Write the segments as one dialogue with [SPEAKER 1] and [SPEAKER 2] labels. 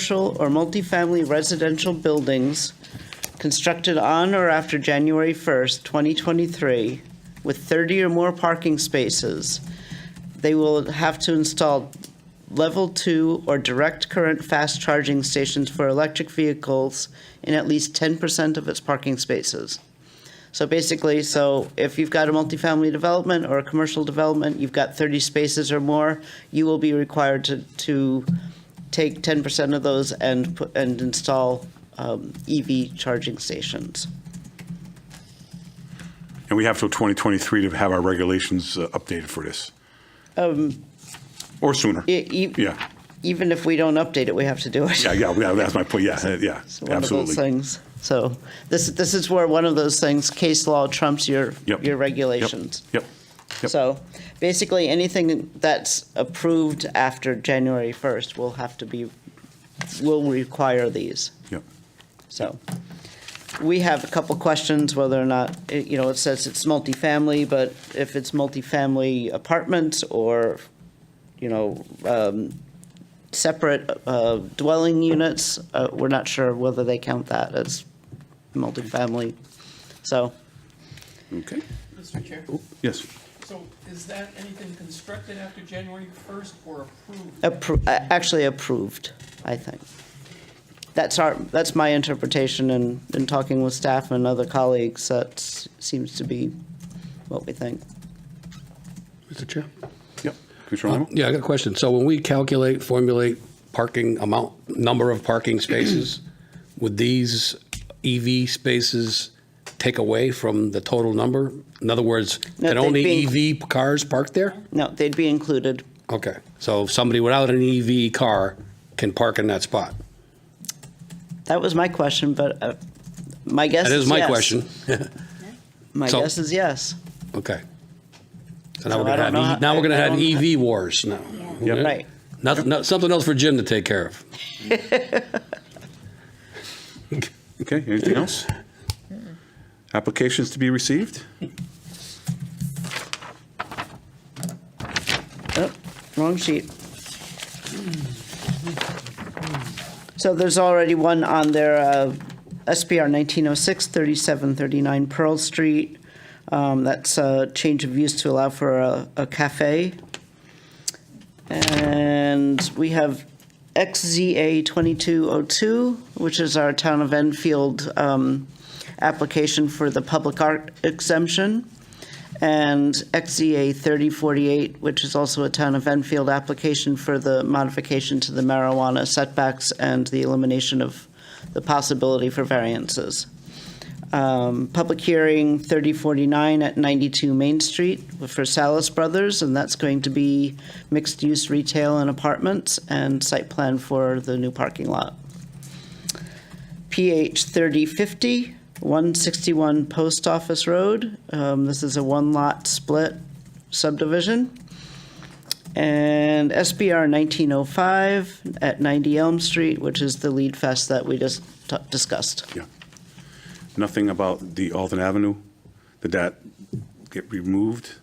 [SPEAKER 1] commercial or multifamily residential buildings constructed on or after January 1st, 2023, with 30 or more parking spaces, they will have to install level two or direct current fast charging stations for electric vehicles in at least 10% of its parking spaces. So basically, so if you've got a multifamily development or a commercial development, you've got 30 spaces or more, you will be required to, to take 10% of those and, put- and install um, EV charging stations.
[SPEAKER 2] And we have till 2023 to have our regulations uh, updated for this.
[SPEAKER 1] Um,
[SPEAKER 2] Or sooner. Yeah,
[SPEAKER 1] E- e-
[SPEAKER 2] yeah,
[SPEAKER 1] Even if we don't update it, we have to do it.
[SPEAKER 2] yeah, yeah, that's my point, yeah, uh, yeah,
[SPEAKER 1] It's one of those
[SPEAKER 2] absolutely.
[SPEAKER 1] things. So this, this is where one of those things, case law trumps your,
[SPEAKER 2] Yep.
[SPEAKER 1] your
[SPEAKER 2] Yep.
[SPEAKER 1] regulations.
[SPEAKER 2] Yep, yep.
[SPEAKER 1] So basically, anything that's approved after January 1st will have to be, will require these.
[SPEAKER 2] yep.
[SPEAKER 1] So we have a couple questions whether or not, it- you know, it says it's multifamily, but if it's multifamily apartments or, you know, um, separate uh, dwelling units, uh, we're not sure whether they count that as multifamily. So
[SPEAKER 2] Okay,
[SPEAKER 3] Mr. Chair,
[SPEAKER 2] yes.
[SPEAKER 3] so is that anything constructed after January 1st or approved?
[SPEAKER 1] appro- uh, actually approved, I think. That's our, that's my interpretation and in talking with staff and other colleagues, that seems to be what we think.
[SPEAKER 4] Mr. Chair?
[SPEAKER 2] Yep. Commissioner Lamo?
[SPEAKER 4] Um, Yeah, I got a question. So when we calculate, formulate parking amount, number of parking spaces, would these EV spaces take away from the total number? In other words,
[SPEAKER 1] No, they'd
[SPEAKER 4] can only
[SPEAKER 1] be-
[SPEAKER 4] EV cars park there?
[SPEAKER 1] No, they'd be included.
[SPEAKER 4] Okay, so somebody without an EV car can park in that spot?
[SPEAKER 1] That was my question, but uh, my guess
[SPEAKER 4] That
[SPEAKER 1] is yes.
[SPEAKER 4] is my question.
[SPEAKER 1] My
[SPEAKER 4] So-
[SPEAKER 1] guess is yes.
[SPEAKER 4] Okay. So
[SPEAKER 1] So
[SPEAKER 4] now we're
[SPEAKER 1] I
[SPEAKER 4] gonna
[SPEAKER 1] don't
[SPEAKER 4] have,
[SPEAKER 1] know how-
[SPEAKER 4] E- now we're gonna
[SPEAKER 1] I- I
[SPEAKER 4] have
[SPEAKER 1] don't-
[SPEAKER 4] EV wars now.
[SPEAKER 2] Yep.
[SPEAKER 1] Right.
[SPEAKER 4] Nothing, no- something else for Jim to take care of.
[SPEAKER 2] Okay, anything else? Applications to be received?
[SPEAKER 1] Oh, Wrong sheet. So there's already one on there, uh, SPR 1906, 3739 Pearl Street. Um, That's a change of use to allow for a a cafe. And we have XZA 2202, which is our Town of Enfield um, application for the public art exemption and XZA 3048, which is also a town of Enfield application for the modification to the marijuana setbacks and the elimination of the possibility for variances. Um, Public hearing 3049 at 92 Main Street for Salas Brothers, and that's going to be mixed-use retail and apartments and site plan for the new parking lot. PH 3050, 161 Post Office Road. Um, This is a one-lot split subdivision. And SBR 1905 at 90 Elm Street, which is the lead fest that we just t- discussed.
[SPEAKER 2] Yeah. Nothing about the Alton Avenue? Did that get removed?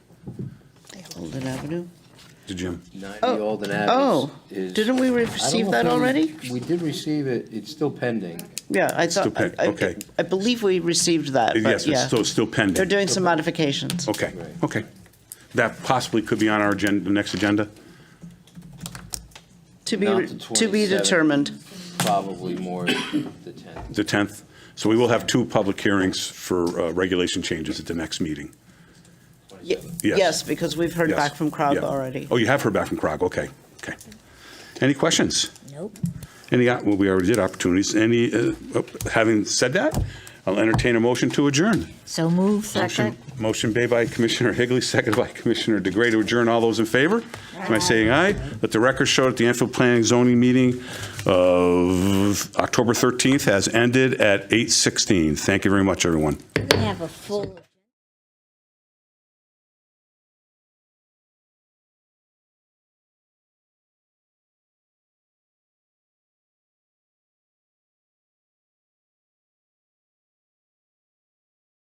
[SPEAKER 1] Holden Avenue?
[SPEAKER 2] Did Jim?
[SPEAKER 5] 90
[SPEAKER 1] Oh.
[SPEAKER 5] Alden
[SPEAKER 1] Oh,
[SPEAKER 5] Ave is. is-
[SPEAKER 1] didn't we
[SPEAKER 5] I don't
[SPEAKER 1] receive
[SPEAKER 5] know
[SPEAKER 1] that
[SPEAKER 5] if we-
[SPEAKER 1] already?
[SPEAKER 5] We did receive it, it's still pending.
[SPEAKER 1] Yeah, I
[SPEAKER 2] Still
[SPEAKER 1] thought,
[SPEAKER 2] pen-
[SPEAKER 1] I- I
[SPEAKER 2] okay.
[SPEAKER 1] I believe we received that, but
[SPEAKER 2] Yes, it's
[SPEAKER 1] yeah.
[SPEAKER 2] still, still pending.
[SPEAKER 1] They're doing some modifications.
[SPEAKER 2] Okay, okay. That possibly could be on our agenda, the next agenda?
[SPEAKER 1] To be,
[SPEAKER 5] Not
[SPEAKER 1] re-
[SPEAKER 5] the
[SPEAKER 1] to be
[SPEAKER 5] 27th.
[SPEAKER 1] determined.
[SPEAKER 5] Probably more the 10th.
[SPEAKER 2] The 10th. So we will have two public hearings for uh, regulation changes at the next meeting.
[SPEAKER 1] Ye-
[SPEAKER 2] Yes.
[SPEAKER 1] Yes, because we've heard
[SPEAKER 2] Yes.
[SPEAKER 1] back from Crog
[SPEAKER 2] Yeah.
[SPEAKER 1] already.
[SPEAKER 2] Oh, you have heard back from CROG, okay, okay. Any questions?
[SPEAKER 6] Nope.
[SPEAKER 2] Any, uh, well, we already did opportunities, any, uh, oh, having said that, I'll entertain a motion to adjourn.
[SPEAKER 6] So move,
[SPEAKER 2] Motion
[SPEAKER 6] second.
[SPEAKER 2] Motion made by Commissioner Higley, seconded by Commissioner DeGray to adjourn. All those in favor? Am I saying aye? Let the record show that the Enfield Planning and Zoning meeting of October 13th has ended at 8:16. Thank you very much, everyone.
[SPEAKER 6] We have a full.